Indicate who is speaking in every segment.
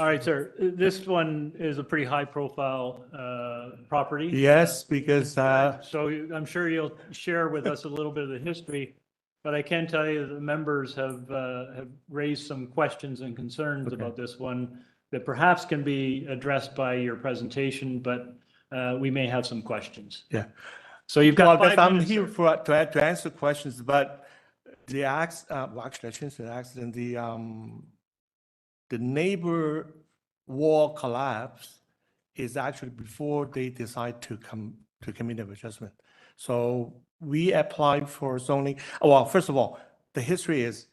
Speaker 1: All right, sir. This one is a pretty high-profile uh, property.
Speaker 2: Yes, because, uh,
Speaker 1: So you- I'm sure you'll share with us a little bit of the history, but I can tell you that the members have, uh, have raised some questions and concerns
Speaker 2: Okay.
Speaker 1: about this one that perhaps can be addressed by your presentation, but uh, we may have some questions.
Speaker 2: Yeah.
Speaker 1: So you've
Speaker 2: well,
Speaker 1: got
Speaker 2: but
Speaker 1: five
Speaker 2: I'm
Speaker 1: minutes.
Speaker 2: here for, to, to answer questions, but the acts, uh, well, actually, I changed the accident, the, um, the neighbor wall collapse is actually before they decide to come, to commit an adjustment. So we applied for zoning, oh, well, first of all, the history is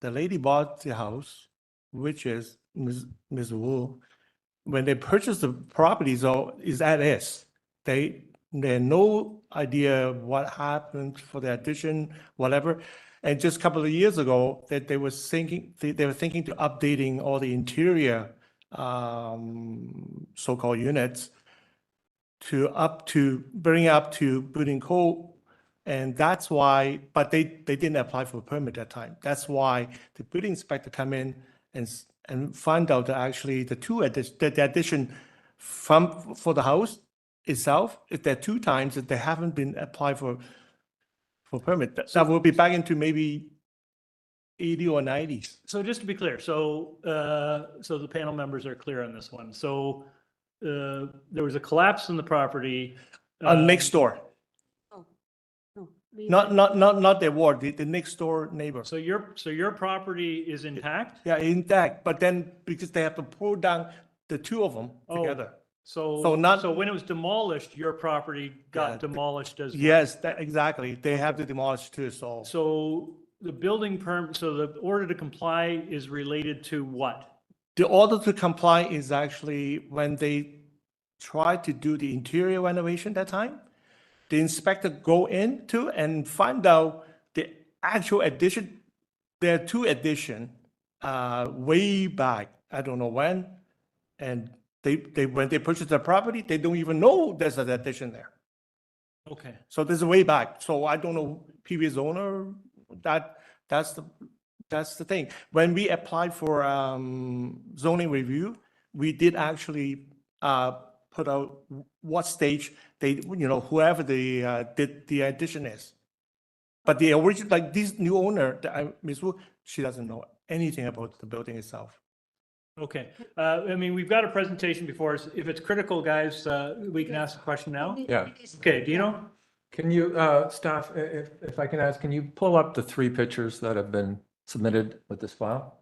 Speaker 2: the lady bought the house, which is Ms. Ms. Wu. When they purchased the property, so is at S. They, they had no idea what happened for the addition, whatever. And just a couple of years ago, that they were thinking, they, they were thinking to updating all the interior, um, so-called units to up to, bring up to building code. And that's why, but they, they didn't apply for a permit that time. That's why the building inspector come in and, s- and find out that actually the two addition, that the addition from, for the house itself, if there are two times that they haven't been applied for, for permit, that, that will be back into maybe eighty or nineties.
Speaker 1: So just to be clear, so, uh, so the panel members are clear on this one. So uh, there was a collapse in the property.
Speaker 2: Uh,
Speaker 1: um,
Speaker 2: next door,
Speaker 3: No, we
Speaker 2: not,
Speaker 3: had-
Speaker 2: not, not, not their ward, the, the next door neighbor.
Speaker 1: So your, so your property is intact?
Speaker 2: Yeah, intact, but then because they have to pull down the two of them
Speaker 1: Oh,
Speaker 2: together.
Speaker 1: So,
Speaker 2: So not-
Speaker 1: so when it was demolished, your property
Speaker 2: Yeah,
Speaker 1: got
Speaker 2: the-
Speaker 1: demolished as,
Speaker 2: Yes, that, exactly. They have to demolish too, so.
Speaker 1: so the building perm, so the order to comply is related to what?
Speaker 2: The order to comply is actually when they try to do the interior renovation that time, the inspector go into and find out the actual addition, there are two addition, uh, way back, I don't know when. And they, they, when they purchase the property, they don't even know there's an addition there.
Speaker 1: Okay,
Speaker 2: So this is way back. So I don't know previous owner, that, that's the, that's the thing. When we applied for um, zoning review, we did actually uh, put out what stage they, you know, whoever the, uh, did the addition is. But the original, like this new owner, the, uh, Ms. Wu, she doesn't know anything about the building itself.
Speaker 1: okay. Uh, I mean, we've got a presentation before us. If it's critical, guys, uh, we can ask a question now.
Speaker 3: it-
Speaker 4: Yeah.
Speaker 3: it is-
Speaker 1: Okay, Dino?
Speaker 4: Can you, uh, staff, i- if, if I can ask, can you pull up the three pictures that have been submitted with this file?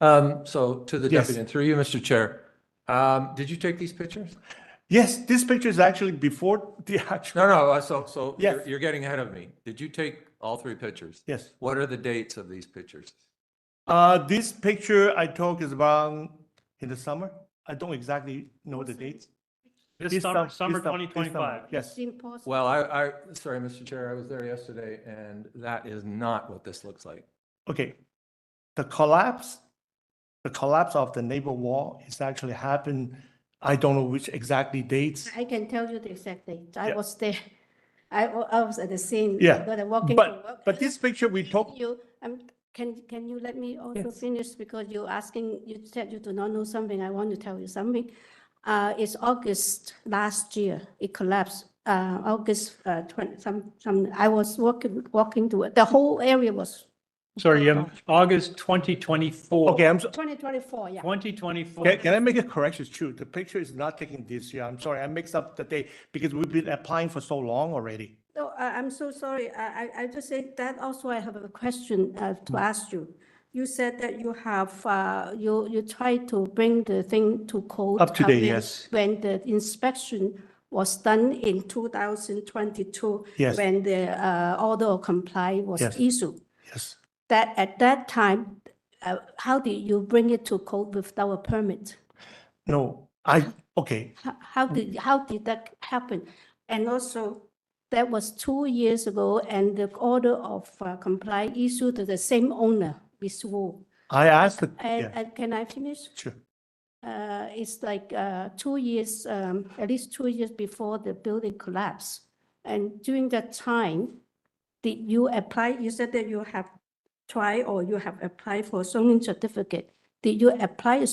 Speaker 4: Um, so to the
Speaker 2: Yes.
Speaker 4: deputy, and through you, Mr. Chair, um, did you take these pictures?
Speaker 2: Yes, this picture is actually before the actual,
Speaker 4: No, no, uh, so, so you're,
Speaker 2: Yes.
Speaker 4: you're getting ahead of me. Did you take all three pictures?
Speaker 2: yes.
Speaker 4: What are the dates of these pictures?
Speaker 2: Uh, this picture I took is around in the summer. I don't exactly know the dates.
Speaker 1: This summer,
Speaker 2: sum-
Speaker 1: summer
Speaker 2: this sum- this summer,
Speaker 1: 2025.
Speaker 2: Yes,
Speaker 3: It's impossible.
Speaker 4: Well, I, I, sorry, Mr. Chair, I was there yesterday and that is not what this looks like.
Speaker 2: okay. The collapse, the collapse of the neighbor wall is actually happened, I don't know which exactly dates.
Speaker 3: I can tell you the exact date. I
Speaker 2: Yeah.
Speaker 3: was there. I, wa- I was at the scene.
Speaker 2: Yeah,
Speaker 3: But I'm walking to
Speaker 2: But,
Speaker 3: work.
Speaker 2: but this picture we took,
Speaker 3: You, um, can, can you let me also finish because you're asking, you said you do not know something. I want to tell you something. Uh, it's August last year, it collapsed. Uh, August, uh, twenty, some, some, I was walking, walking to, work. the whole area was
Speaker 1: Sorry, you have August 2024.
Speaker 2: okay, I'm, so-
Speaker 3: twenty twenty-four, yeah.
Speaker 1: 2024.
Speaker 2: can, can I make a correction? It's True, the picture is not taken this year. I'm sorry, I mixed up the date because we've been applying for so long already.
Speaker 3: No, I, I'm so sorry. I, I, I just said that also I have a question uh, to
Speaker 2: Mm.
Speaker 3: ask you. You said that you have, uh, you, you tried to bring the thing to code.
Speaker 2: Up to date,
Speaker 3: when-
Speaker 2: yes.
Speaker 3: When the inspection was done in 2022.
Speaker 2: Yes.
Speaker 3: When the uh, order of comply was
Speaker 2: Yes.
Speaker 3: issued.
Speaker 2: Yes.
Speaker 3: That, at that time, uh, how did you bring it to code without a permit?
Speaker 2: No, I, okay,
Speaker 3: How- How did, how did that happen? And also, that was two years ago, and the order of uh, comply issued to the same owner, Ms. Wu.
Speaker 2: I asked, the-
Speaker 3: And,
Speaker 2: yeah,
Speaker 3: and can I finish?
Speaker 2: sure.
Speaker 3: Uh, It's like uh, two years, um, at least two years before the building collapse. And during that time, did you apply, you said that you have tried or you have applied for zoning certificate. Did you apply a